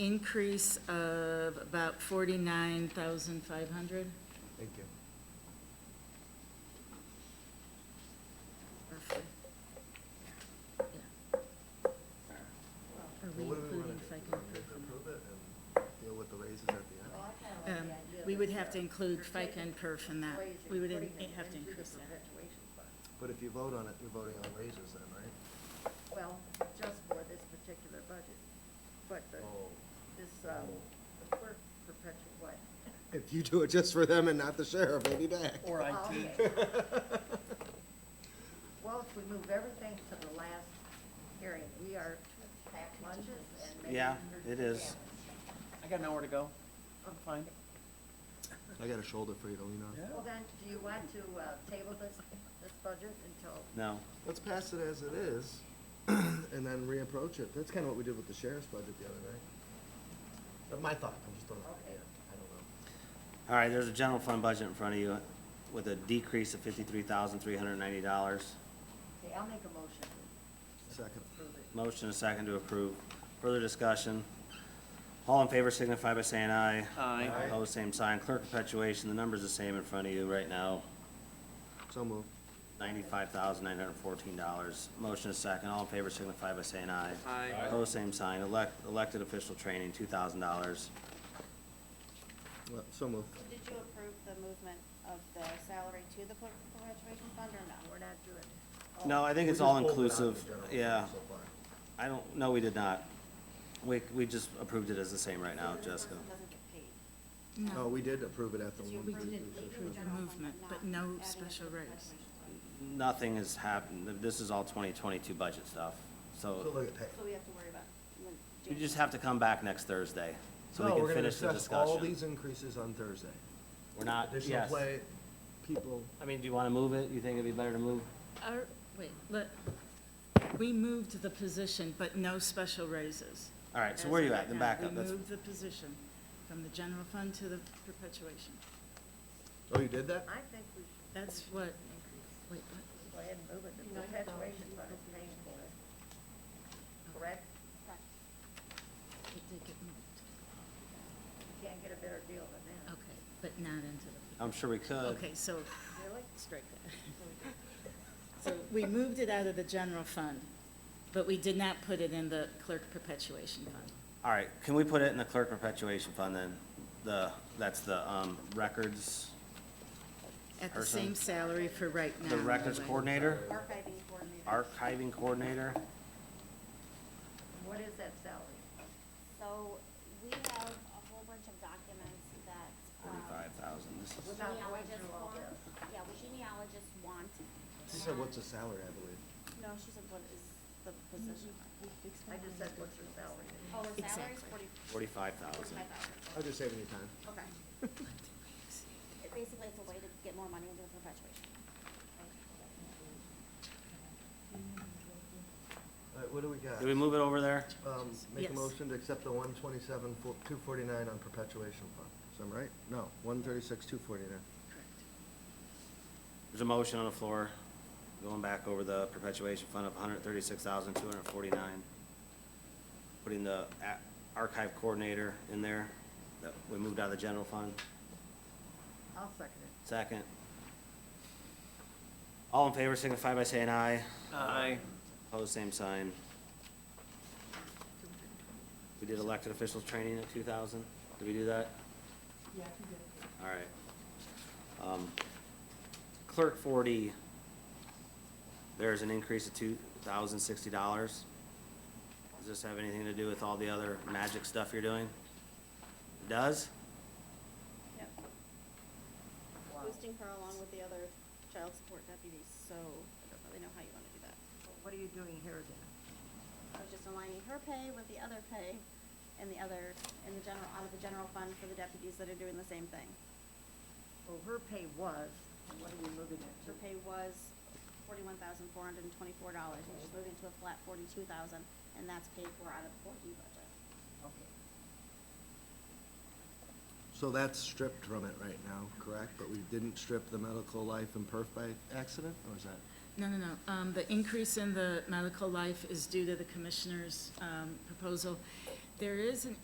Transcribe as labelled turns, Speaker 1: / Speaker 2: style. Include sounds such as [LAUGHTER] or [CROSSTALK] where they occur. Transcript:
Speaker 1: increase of about forty-nine thousand five hundred,
Speaker 2: Thank you.
Speaker 1: roughly. Yeah. Are we
Speaker 2: Well, what do we wanna
Speaker 1: including
Speaker 2: do?
Speaker 1: FICA?
Speaker 2: Do we have to Approve it and deal with the raises at the
Speaker 3: Oh,
Speaker 2: end?
Speaker 1: Um, We would have to include FICA and perf in that. We would in- have to increase that.
Speaker 2: But if you vote on it, you're voting on raises then, right?
Speaker 3: Well, just for this particular budget, but the, this, um, the clerk perpetual what?
Speaker 2: If you do it just for them and not the sheriff, they'll be back.
Speaker 3: Or IT. Well, if we move everything to the last hearing, we are packed lunches and maybe.
Speaker 4: Yeah,
Speaker 3: there's
Speaker 4: it is.
Speaker 3: families.
Speaker 4: I got nowhere to go. I'm fine.
Speaker 2: I got a shoulder for you to lean on.
Speaker 3: Well then, do you want to, uh, table this, this budget until,
Speaker 4: No.
Speaker 2: Let's pass it as it is [CLEARS THROAT] and then reapproach it. That's kind of what we did with the sheriff's budget the other night. But my thought, I'm just throwing it idea. I don't know.
Speaker 4: All right, there's a general fund budget in front of you with a decrease of fifty-three thousand, three hundred and ninety dollars.
Speaker 3: okay, I'll make a motion to
Speaker 2: Second.
Speaker 3: approve it.
Speaker 4: Motion and second to approve. Further discussion. All in favor signify by saying aye.
Speaker 5: Aye.
Speaker 2: Aye.
Speaker 4: Opposed, same sign. Clerk perpetuation, the number's the same in front of you right now.
Speaker 2: So moved.
Speaker 4: Ninety-five thousand, nine hundred and fourteen dollars. Motion is second. All in favor signify by saying aye.
Speaker 5: Aye. Aye.
Speaker 4: Opposed, same sign. Elect, elected official training, two thousand dollars.
Speaker 2: Well, So moved.
Speaker 6: Did you approve the movement of the salary to the clerk perpetuation fund or no?
Speaker 3: We're not doing.
Speaker 4: No, I think
Speaker 2: We
Speaker 4: it's
Speaker 2: just
Speaker 4: all
Speaker 2: pulled it out of the
Speaker 4: inclusive.
Speaker 2: general fund
Speaker 4: Yeah.
Speaker 2: so far.
Speaker 4: I don't, no, we did not. We, we just approved it as the same right now,
Speaker 6: So this
Speaker 4: Jessica.
Speaker 6: person Doesn't get paid.
Speaker 2: No, Oh, we did approve it at the
Speaker 6: Did you
Speaker 2: one.
Speaker 6: approve it
Speaker 2: we-
Speaker 6: leaving the general fund
Speaker 1: movement, but
Speaker 6: not
Speaker 1: no
Speaker 6: adding it to
Speaker 1: special
Speaker 6: the
Speaker 1: raise.
Speaker 6: perpetuation fund?
Speaker 4: Nothing has happened. This is all twenty twenty-two budget stuff.
Speaker 2: So look
Speaker 4: So
Speaker 2: at that.
Speaker 6: So we have to worry about. the
Speaker 4: you just
Speaker 6: January.
Speaker 4: have to come back next Thursday so
Speaker 2: No, Oh, we're
Speaker 4: we can
Speaker 2: gonna
Speaker 4: finish the
Speaker 2: discuss All
Speaker 4: discussion.
Speaker 2: these increases on Thursday.
Speaker 4: We're not,
Speaker 2: Additional
Speaker 4: yes.
Speaker 2: play, people,
Speaker 4: I mean, do you want to move it? You think it'd be better to move?
Speaker 1: Our, wait, let, we moved the position, but no special raises.
Speaker 4: All right, so
Speaker 1: As
Speaker 4: where are you
Speaker 1: of
Speaker 4: at?
Speaker 1: right
Speaker 4: Then
Speaker 1: now,
Speaker 4: back up.
Speaker 1: We
Speaker 4: That's,
Speaker 1: moved the position from the general fund to the perpetuation.
Speaker 2: oh, you did that?
Speaker 3: I think we should
Speaker 1: That's what, wait, what?
Speaker 3: Go ahead and move it, the perpetuation fund is paying for it. Correct?
Speaker 6: Correct.
Speaker 1: It did get moved.
Speaker 3: You can't get a better deal than that.
Speaker 1: Okay, but not into the.
Speaker 4: I'm sure we could.
Speaker 1: Okay, so,
Speaker 3: Really?
Speaker 1: strike that. So we moved it out of the general fund, but we did not put it in the clerk perpetuation fund.
Speaker 4: All right, can we put it in the clerk perpetuation fund then? The, that's the, um, records,
Speaker 1: At the
Speaker 4: Person.
Speaker 1: same salary for right now.
Speaker 4: the records
Speaker 1: anyway.
Speaker 4: coordinator,
Speaker 6: Archiving coordinator.
Speaker 4: archiving coordinator.
Speaker 3: And What is that salary?
Speaker 6: So we have a whole bunch of documents that. um,
Speaker 4: Forty-five thousand, this is.
Speaker 3: Without going
Speaker 6: genealogists
Speaker 3: through all
Speaker 6: want.
Speaker 3: this.
Speaker 6: Yeah, what genealogists want.
Speaker 2: She said, what's the
Speaker 6: Um,
Speaker 2: salary, I believe?
Speaker 6: No, she said, what is the position?
Speaker 3: I just said, what's your salary?
Speaker 6: Oh,
Speaker 1: Mm-hmm.
Speaker 6: the salary's
Speaker 1: Exactly.
Speaker 6: forty.
Speaker 4: Forty-five thousand.
Speaker 6: Forty-five
Speaker 2: I'll
Speaker 6: thousand.
Speaker 2: just saving you time.
Speaker 6: Okay. It- Basically, it's a way to get more money into the perpetuation.
Speaker 2: All right, what do we got?
Speaker 4: Did we move it over there?
Speaker 2: Um, make
Speaker 1: Yes.
Speaker 2: a motion to accept the one twenty-seven, two forty-nine on perpetuation fund. Is that right? No, one thirty-six, two forty-nine.
Speaker 1: [LAUGHS] Correct.
Speaker 4: There's a motion on the floor, going back over the perpetuation fund of hundred thirty-six thousand, two hundred forty-nine. Putting the a- archive coordinator in there, that we moved out of the general fund.
Speaker 3: I'll second it.
Speaker 4: Second. All in favor signify by saying aye.
Speaker 5: Aye.
Speaker 4: Opposed, same sign. We did elected officials training at two thousand. Did we do that? Yeah, All right. Um, Clerk forty, there's an increase of two thousand sixty dollars. Does this have anything to do with all the other magic stuff you're doing? It Does?
Speaker 6: Yep.
Speaker 3: Wow.
Speaker 6: Boosting her along with the other child support deputies, so I don't really know how you wanna do that.
Speaker 3: What are you doing here then?
Speaker 6: I was just aligning her pay with the other pay and the other, in the general, out of the general fund for the deputies that are doing the same thing.
Speaker 3: Well, her pay was, and what are we moving it to?
Speaker 6: Her pay was forty-one thousand four hundred and twenty-four dollars, and she's moving to a flat forty-two thousand, and that's paid for out of the four D budget.
Speaker 3: Okay.
Speaker 2: So that's stripped from it right now, correct? But we didn't strip the medical life and perf by accident, or is that?
Speaker 1: No, no, no. Um, the increase in the medical life is due to the commissioner's, um, proposal. There is an